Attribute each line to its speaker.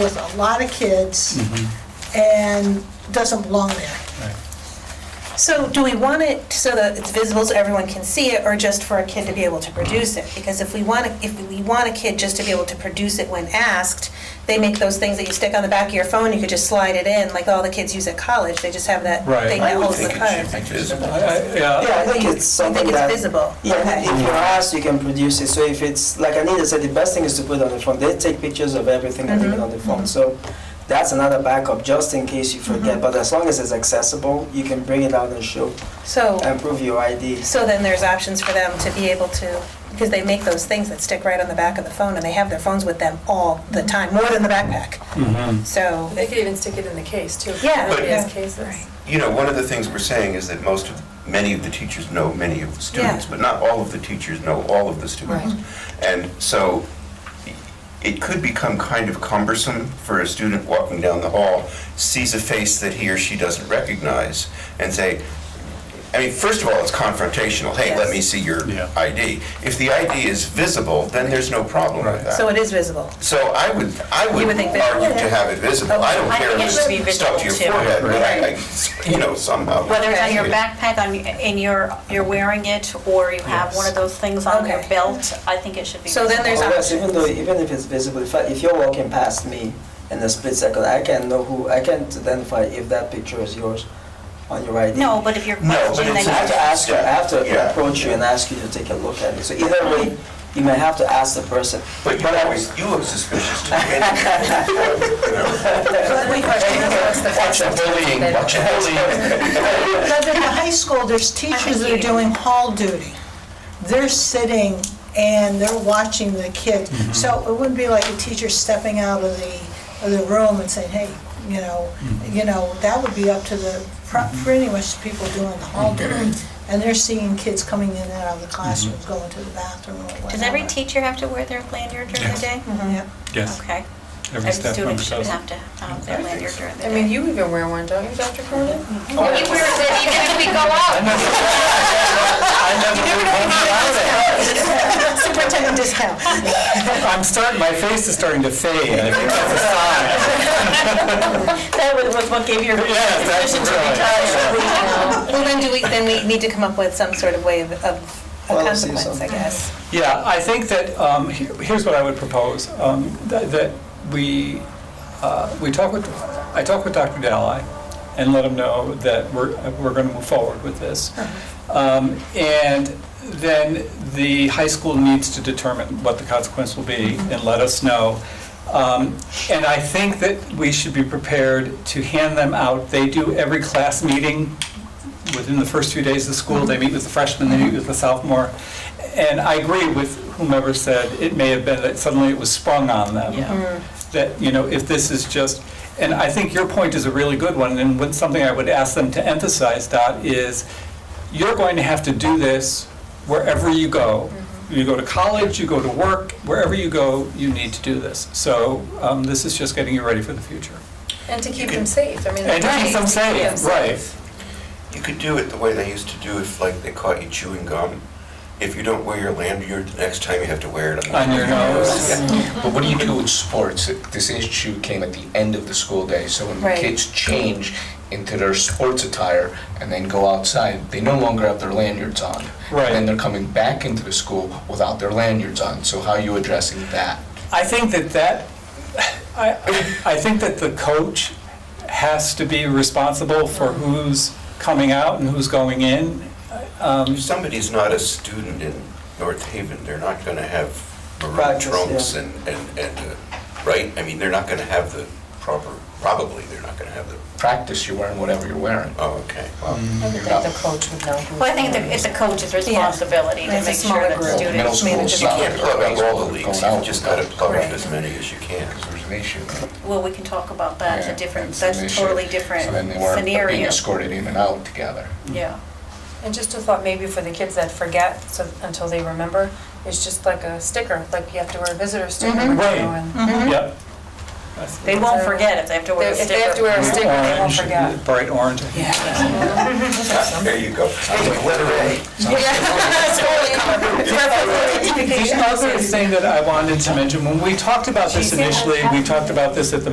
Speaker 1: with a lot of kids and doesn't belong there.
Speaker 2: Right.
Speaker 3: So do we want it so that it's visible so everyone can see it, or just for a kid to be able to produce it? Because if we want, a- if we want a kid just to be able to produce it when asked, they make those things that you stick on the back of your phone, you could just slide it in, like all the kids use at college, they just have that
Speaker 2: Right.
Speaker 3: thing
Speaker 4: I
Speaker 3: that
Speaker 4: would
Speaker 3: holds the
Speaker 4: think
Speaker 3: card.
Speaker 4: it should be visible.
Speaker 2: I- I- Yeah,
Speaker 4: Yeah, I think
Speaker 3: You- you
Speaker 4: it's
Speaker 3: think
Speaker 4: something
Speaker 3: it's
Speaker 4: that...
Speaker 3: visible?
Speaker 4: Yeah, I
Speaker 3: Okay.
Speaker 4: think if you're asked, you can produce it. So if it's, like Anita said, the best thing is to put it on the phone. They take pictures of everything and
Speaker 3: Mm-hmm.
Speaker 4: leave it on the phone. So that's another backup, just in case you forget.
Speaker 3: Mm-hmm.
Speaker 4: But as long as it's accessible, you can bring it out and show
Speaker 3: So,
Speaker 4: and prove your ID.
Speaker 3: so then there's options for them to be able to, because they make those things that stick right on the back of the phone, and they have their phones with them all the time, more than the backpack.
Speaker 2: Mhm.
Speaker 3: So,
Speaker 5: They could even stick it in the case too.
Speaker 3: Yeah,
Speaker 5: One of
Speaker 3: yeah.
Speaker 5: these cases.
Speaker 4: Right.
Speaker 6: You know, one of the things we're saying is that most of, many of the teachers know many of the students,
Speaker 3: Yeah.
Speaker 6: but not all of the teachers know all of the students. And so it could become kind of cumbersome for a student walking down the hall, sees a face that he or she doesn't recognize, and say, I mean, first of all, it's confrontational, hey, let
Speaker 3: Yes.
Speaker 6: me see your
Speaker 2: Yeah.
Speaker 6: ID. If the ID is visible, then there's no problem with that.
Speaker 3: so it is visible.
Speaker 6: So I would, I would
Speaker 3: You would think that-
Speaker 6: argue to have it visible. I don't
Speaker 7: I
Speaker 6: care
Speaker 7: think it
Speaker 6: if
Speaker 7: should be
Speaker 6: it's stuck to your
Speaker 7: visible, too.
Speaker 6: forehead, but I,
Speaker 7: Right.
Speaker 6: I- you know, somehow.
Speaker 7: Whether it's on your
Speaker 6: Yeah.
Speaker 7: backpack, on, and you're, you're wearing it, or you have one of those things on your
Speaker 3: Okay.
Speaker 7: belt, I think it should be.
Speaker 3: So then there's
Speaker 7: visible.
Speaker 4: Or else,
Speaker 3: options.
Speaker 4: even though, even if it's visible, if, I- if you're walking past me in a split second, I can know who, I can't identify if that picture is yours on your ID.
Speaker 7: No, but if you're
Speaker 6: No, but
Speaker 7: questioning,
Speaker 4: So I have
Speaker 7: then
Speaker 4: to ask you, I have to
Speaker 6: Yeah.
Speaker 4: approach you and ask you to take a look at it. So either way, you may have to ask the person.
Speaker 6: But you always, you look suspicious to me. You know, Watch the bullying, watch the bullying.
Speaker 1: But at the high school, there's teachers that are doing hall duty. They're sitting and they're watching the kids. So it wouldn't be like a teacher stepping out of the, of the room and saying, hey, you know, you know, that would be up to the, pr- pretty much the people doing the hall duty. And they're seeing kids coming in and out of the classrooms, going to the bathroom or whatever.
Speaker 7: does every teacher have to wear their lanyard during the
Speaker 2: Yes.
Speaker 7: day?
Speaker 1: Yeah.
Speaker 2: yes.
Speaker 7: Okay.
Speaker 2: Every
Speaker 7: Every
Speaker 2: staff
Speaker 7: student
Speaker 2: member
Speaker 7: should
Speaker 2: does.
Speaker 7: have to have their lanyard during the
Speaker 5: I
Speaker 7: day.
Speaker 5: mean, you even wear one, don't you, Dr. Cronin?
Speaker 3: Mm-hmm.
Speaker 8: You wear that even if we go out.
Speaker 3: Superintendent discount.
Speaker 2: I'm starting, my face is starting to fade. I think that's a sign.
Speaker 7: That was was what gave your
Speaker 2: Yes, that's
Speaker 7: decision
Speaker 2: right.
Speaker 7: to retire.
Speaker 3: Well, then do we, then we need to come up with some sort of way of, of a
Speaker 4: Policy or
Speaker 3: consequence, I
Speaker 4: something.
Speaker 3: guess.
Speaker 2: Yeah, I think that, um, here- here's what I would propose, um, that that we, uh, we talk with, I talk with Dr. Dalai and let him know that we're, we're going to move forward with this. Um, And then the high school needs to determine what the consequence will be and let us know. Um, And I think that we should be prepared to hand them out. They do every class meeting within the first few days of school, they meet with the freshman, they meet with the sophomore. And I agree with whomever said, it may have been that suddenly it was sprung on them. That, you know, if this is just, and I think your point is a really good one, and what- something I would ask them to emphasize, Dot, is you're going to have to do this wherever you go. You go to college, you go to work, wherever you go, you need to do this. So um, this is just getting you ready for the future.
Speaker 5: And to keep them safe, I mean.
Speaker 2: And to keep them
Speaker 5: Yeah.
Speaker 2: safe, right.
Speaker 6: You could do it the way they used to do if, like, they caught you chewing gum. If you don't wear your lanyard, the next time you have to wear it on.
Speaker 2: On your nose.
Speaker 9: But what do you do with sports? This issue came at the end of the school day, so when the
Speaker 3: Right.
Speaker 9: kids change into their sports attire and then go outside, they no longer have their lanyards on.
Speaker 2: Right.
Speaker 9: And then they're coming back into the school without their lanyards on, so how are you addressing that?
Speaker 2: I think that that, I, I think that the coach has to be responsible for who's coming out and who's going in. Um,
Speaker 6: If somebody's not a student in North Haven, they're not going to have maroon
Speaker 4: Practice,
Speaker 6: trunks
Speaker 4: yeah.
Speaker 6: and, and, and, uh, right? I mean, they're not going to have the proper, probably they're not going to have the,
Speaker 9: Practice, you're wearing whatever you're wearing.
Speaker 6: oh, okay, well.
Speaker 8: The coach would know who.
Speaker 7: Well, I think the- it's the coach's responsibility to
Speaker 3: It's a
Speaker 7: make sure that the
Speaker 3: smaller group.
Speaker 9: Middle
Speaker 7: students.
Speaker 9: school,
Speaker 6: You can't plug up all the
Speaker 9: softball,
Speaker 6: leaks,
Speaker 9: baseball,
Speaker 6: you've just got to plug up
Speaker 3: Correct.
Speaker 6: as many as you can.
Speaker 9: There's an issue.
Speaker 7: Well, we can talk about that, it's a different,
Speaker 9: It's an
Speaker 7: that's
Speaker 9: issue.
Speaker 7: totally different
Speaker 9: So then they weren't being
Speaker 7: scenario.
Speaker 9: escorted in and out together.
Speaker 7: Yeah.
Speaker 5: And just a thought, maybe for the kids that forget, so until they remember, it's just like a sticker, like you have to wear a visitor sticker.
Speaker 3: Mm-hmm.
Speaker 5: when you go
Speaker 2: Right.
Speaker 5: in.
Speaker 2: Yep.
Speaker 7: They won't forget if they have to wear a
Speaker 5: If they have to
Speaker 7: sticker.
Speaker 5: wear a sticker, they won't
Speaker 2: Orange,
Speaker 5: forget.
Speaker 2: bright orange.
Speaker 6: There you go. Obliterate.
Speaker 2: The other thing that I wanted to mention, when we talked about this initially, we talked about this at the